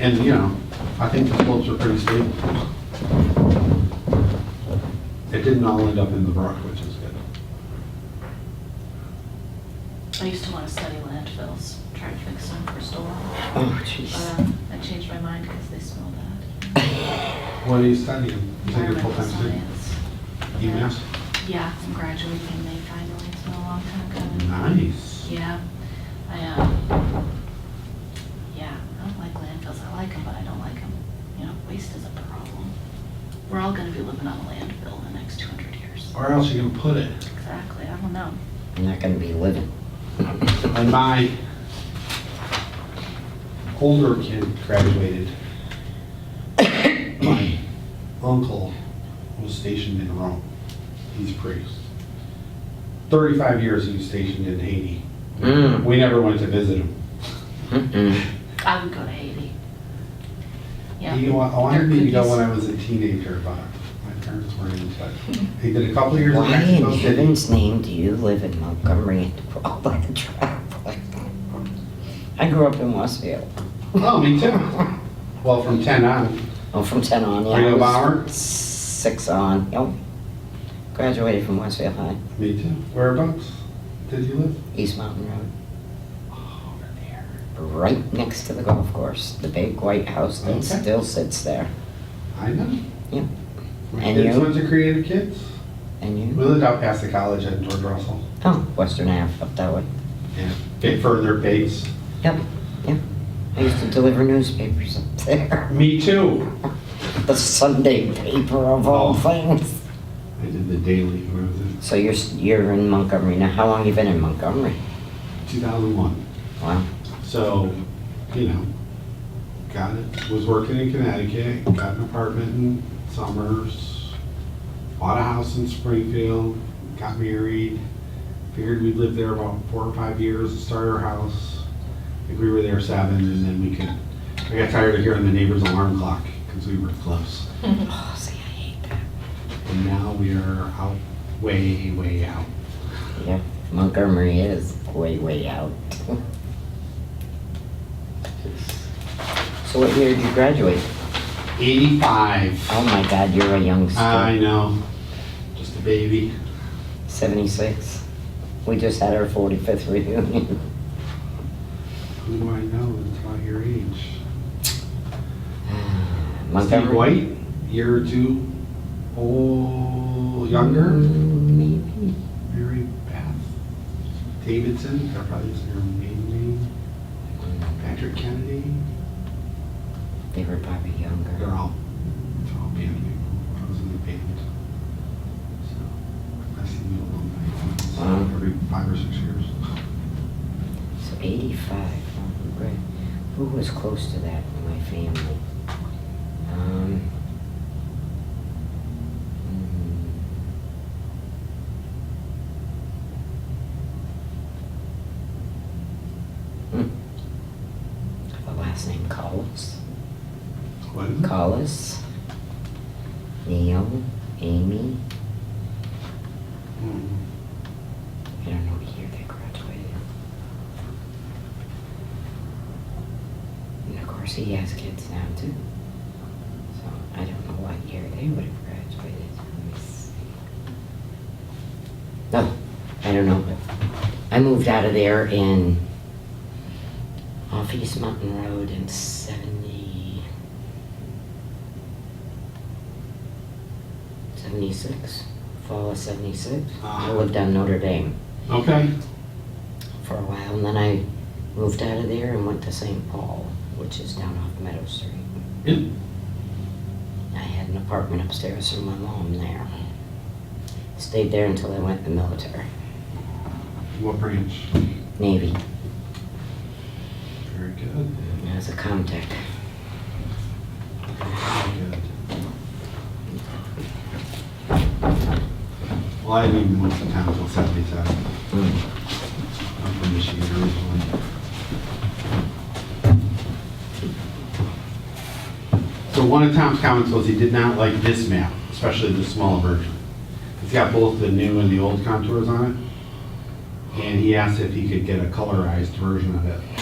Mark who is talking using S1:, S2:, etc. S1: And, you know, I think the slopes are pretty stable. It didn't all end up in the brook, which is good.
S2: I used to want to study landfills, try to fix them for storm.
S3: Oh, jeez.
S2: Uh, I changed my mind because they smell bad.
S1: What are you studying? You said you're a
S2: Environmental
S1: full-time student?
S2: science.
S1: UMass?
S2: Yeah, I'm graduating in May finally, it's been a long time coming.
S1: Nice.
S2: Yeah, I, uh, yeah, I don't like landfills, I like them, but I don't like them, you know, waste is a problem. We're all gonna be living on a landfill in the next two hundred years.
S1: Where else you gonna put it?
S2: Exactly, I don't know.
S3: I'm not gonna be living.
S1: When my older kid graduated, my uncle was stationed in Rome. He's priest. Thirty-five years he was stationed in Haiti.
S3: Mm,
S1: We never went to visit him.
S3: mm-mm.
S2: I would go to Haiti. Yeah.
S1: You know, Oh, I I wanted
S2: Their
S1: me to go
S2: cookies.
S1: when I was a teenager, but my parents weren't in touch. He did a couple of years in
S3: Why in
S1: Mexico City.
S3: heaven's name do you live in Montgomery and do all that traveling? I grew up in Westfield.
S1: Oh, me too. Well, from ten on.
S3: Oh, from ten on, yeah.
S1: Were you a
S3: I was
S1: bomber?
S3: Six on, yep. Graduated from Westfield High,
S1: Me too. Whereabouts did you live?
S3: East Mountain Road,
S1: Over there.
S3: right next to the golf course, the big white house that
S1: Okay.
S3: still sits there.
S1: I know.
S3: Yeah.
S1: My
S3: And
S1: kids
S3: you?
S1: went to Creative Kids.
S3: And
S1: We
S3: you?
S1: lived out past the college at George Russell.
S3: Oh, Western Ave, up that way.
S1: Yeah. Bit further base.
S3: Yep, yep. I used to deliver newspapers up there.
S1: Me too.
S3: The Sunday paper of all
S1: Oh.
S3: things.
S1: I did the daily when I was in
S3: So you're, s- you're in Montgomery. Now, how long you been in Montgomery?
S1: 2001.
S3: Wow.
S1: So, you know, got it, was working in Connecticut, got an apartment in Summers, bought a house in Springfield, got married, figured we'd live there about four or five years, and start our house. I think we were there seven, and then we could, I got tired of hearing the neighbor's alarm clock, because we were close.
S3: Oh, see, I hate that.
S1: And now we are out, way, way out.
S3: Yep, Montgomery is way, way out. So what year did you graduate?
S1: 85.
S3: Oh my God, you're a youngster.
S1: I know, just a baby.
S3: 76. We just had our 45th reunion.
S1: Who do I know that's about your age? Steve
S3: Montgomery.
S1: White, year or two old, younger.
S3: Mm, Maybe.
S1: Mary Beth Davidson, that probably is her maiden name. Patrick Kennedy.
S3: They were probably
S1: They're
S3: younger.
S1: all, they're all band people. I was in the band. So I see the alumni once
S3: Wow.
S1: every five or six years.
S3: So 85. oh, great. Who was close to that in my family? Um, hmm. Hmm. The last name Collis.
S1: What is it?
S3: Collis. Neil. Amy.
S1: Mm.
S3: I don't know what year they graduated. And of course, he has kids now too. So I don't know what year they would have graduated. Let me see. No, I don't know. I moved out of there in off East Mountain Road in seventy. 76, fall of 76. I
S1: Ah.
S3: lived on Notre Dame
S1: Okay.
S3: for a while, and then I moved out of there and went to St. Paul, which is down off Meadow Street.
S1: Yeah.
S3: I had an apartment upstairs from my mom there. Stayed there until I went in the military,
S1: What branch?
S3: Navy,
S1: Very good.
S3: as a comtech.
S1: Very good. Well, I didn't even move to town until 77.
S3: Mm.
S1: I'm from Michigan originally. So one of Tom's comments was he did not like this map, especially the small version. It's got both the new and the old contours on it. And he asked if he could get a colorized version of it.